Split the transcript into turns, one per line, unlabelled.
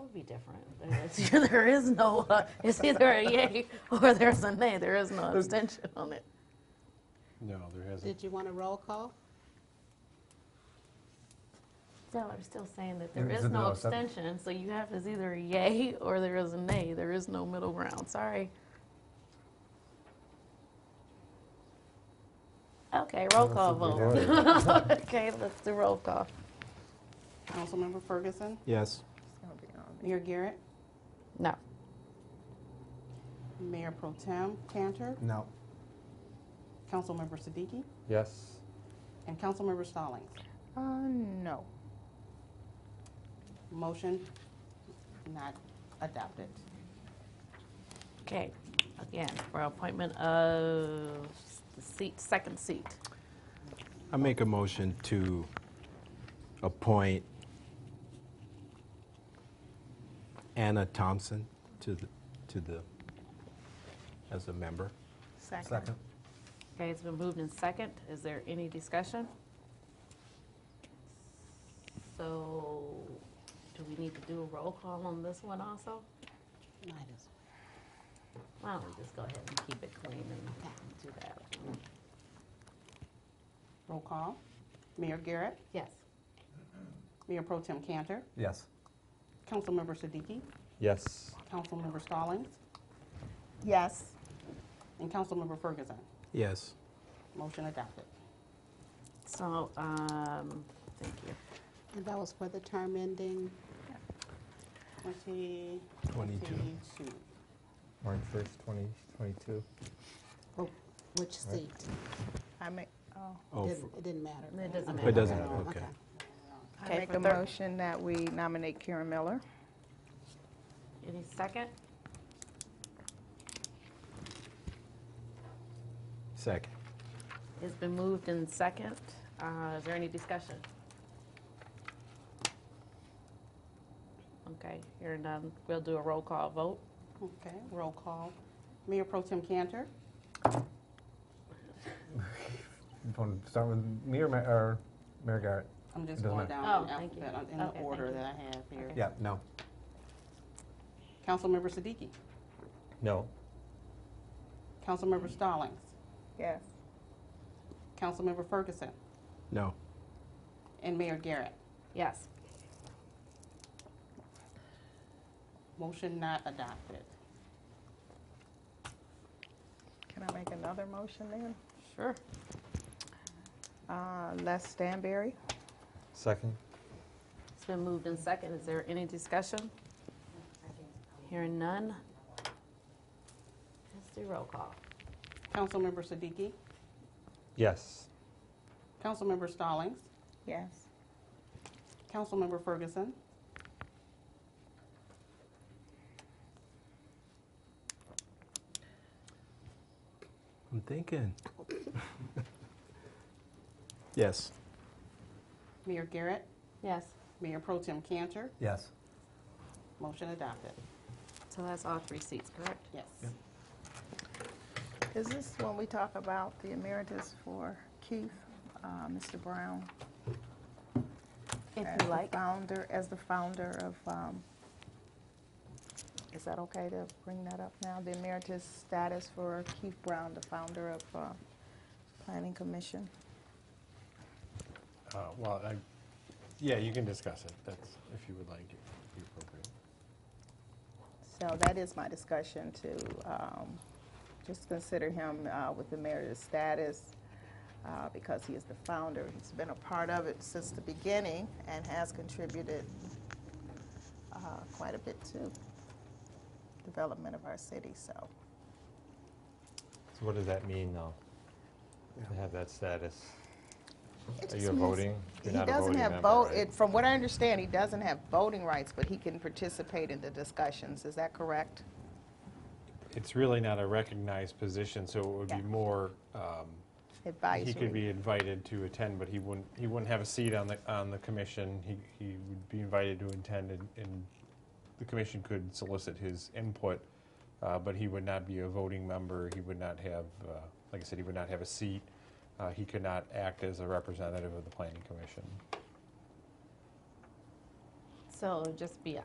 would be different. There's- There is no, uh, it's either a yay or there's a nay. There is no abstention on it.
No, there hasn't.
Did you want a roll call?
Still, I'm still saying that
There
there is
isn't
no
no sub-
abstention, so you have is either a yay or there is a nay. There is no middle ground, sorry. Okay, roll
don't
call
think
vote.
we
Okay, let's do roll call.
Councilmember Ferguson,
Yes.
Mayor Garrett,
No,
Mayor Pro Tem Cantor,
No.
Councilmember Siddiqui,
Yes.
and Councilmember Stallings.
Uh, no.
Motion not adopted.
okay, again, for appointment of the seat, second seat.
I make a motion to appoint Anna Thompson to the, to the, as a member.
Second. Okay, it's been moved in second. Is there any discussion? So, do we need to do a roll call on this one also?
Might as
Why don't we just go ahead and keep it clean and do that?
well. Roll call. Mayor Garrett,
Yes.
Mayor Pro Tem Cantor,
Yes.
Councilmember Siddiqui,
Yes.
Councilmember Stallings,
Yes.
and Councilmember Ferguson.
Yes.
Motion adopted.
So, um, thank you.
And that was for the term ending 2022.
22.
March first, twenty twenty-two.
Which seat?
I make, oh,
Oh,
Didn't- It didn't matter.
It doesn't
It doesn't
matter.
matter, okay.
Okay,
I make
for
a
third-
motion that we nominate Karen Miller.
Any second?
Second.
It's been moved in second. Uh, is there any discussion? Okay, hearing none, we'll do a roll call vote.
Okay, roll call. Mayor Pro Tem Cantor,
Want to start with me or Ma- or Mayor Garrett?
I'm just
Doesn't
going
matter.
down in
Oh, thank you.
alphabet, uh, in the
Okay, thank
order
you.
that I have here.
Okay.
Yeah, no.
Councilmember Siddiqui,
No.
Councilmember Stallings,
Yes.
Councilmember Ferguson,
No.
and Mayor Garrett.
Yes.
Motion not adopted.
Can I make another motion then?
Sure.
Uh, Les Stanberry.
Second.
It's been moved in second. Is there any discussion? Hearing none. Let's do roll call.
Councilmember Siddiqui,
Yes.
Councilmember Stallings,
Yes.
Councilmember Ferguson,
I'm thinking. Yes.
Mayor Garrett,
Yes.
Mayor Pro Tem Cantor.
Yes.
Motion adopted.
So that's all three seats, correct?
Yes.
Is this when we talk about the emeritus for Keith, uh, Mr. Brown?
If
as the Founder, as the founder of, um, is that okay to bring that up now? The emeritus status for Keith Brown, the founder of uh, Planning Commission?
Uh, Well, I, yeah, you can discuss it, that's, if you would like, it would be appropriate.
So that is my discussion to um, just consider him uh, with the emeritus status uh, because he is the founder. He's been a part of it since the beginning and has contributed uh, quite a bit to development of our city. So
So what does that mean, though? To have that status?
It
Are
just
you
means-
voting? You're
he
not a
doesn't
voting
have
member,
vote.
right?
It, from what I understand, he doesn't have voting rights, but he can participate in the discussions. Is that correct?
It's really not a recognized position, so it would
Yeah.
be more, um,
Advisory.
he could be invited to attend, but he wouldn't, he wouldn't have a seat on the, on the commission. He, he would be invited to attend, and- and the commission could solicit his input, uh, but he would not be a voting member. He would not have, uh, like I said, he would not have a seat. Uh, He could not act as a representative of the planning commission.
So it'd just be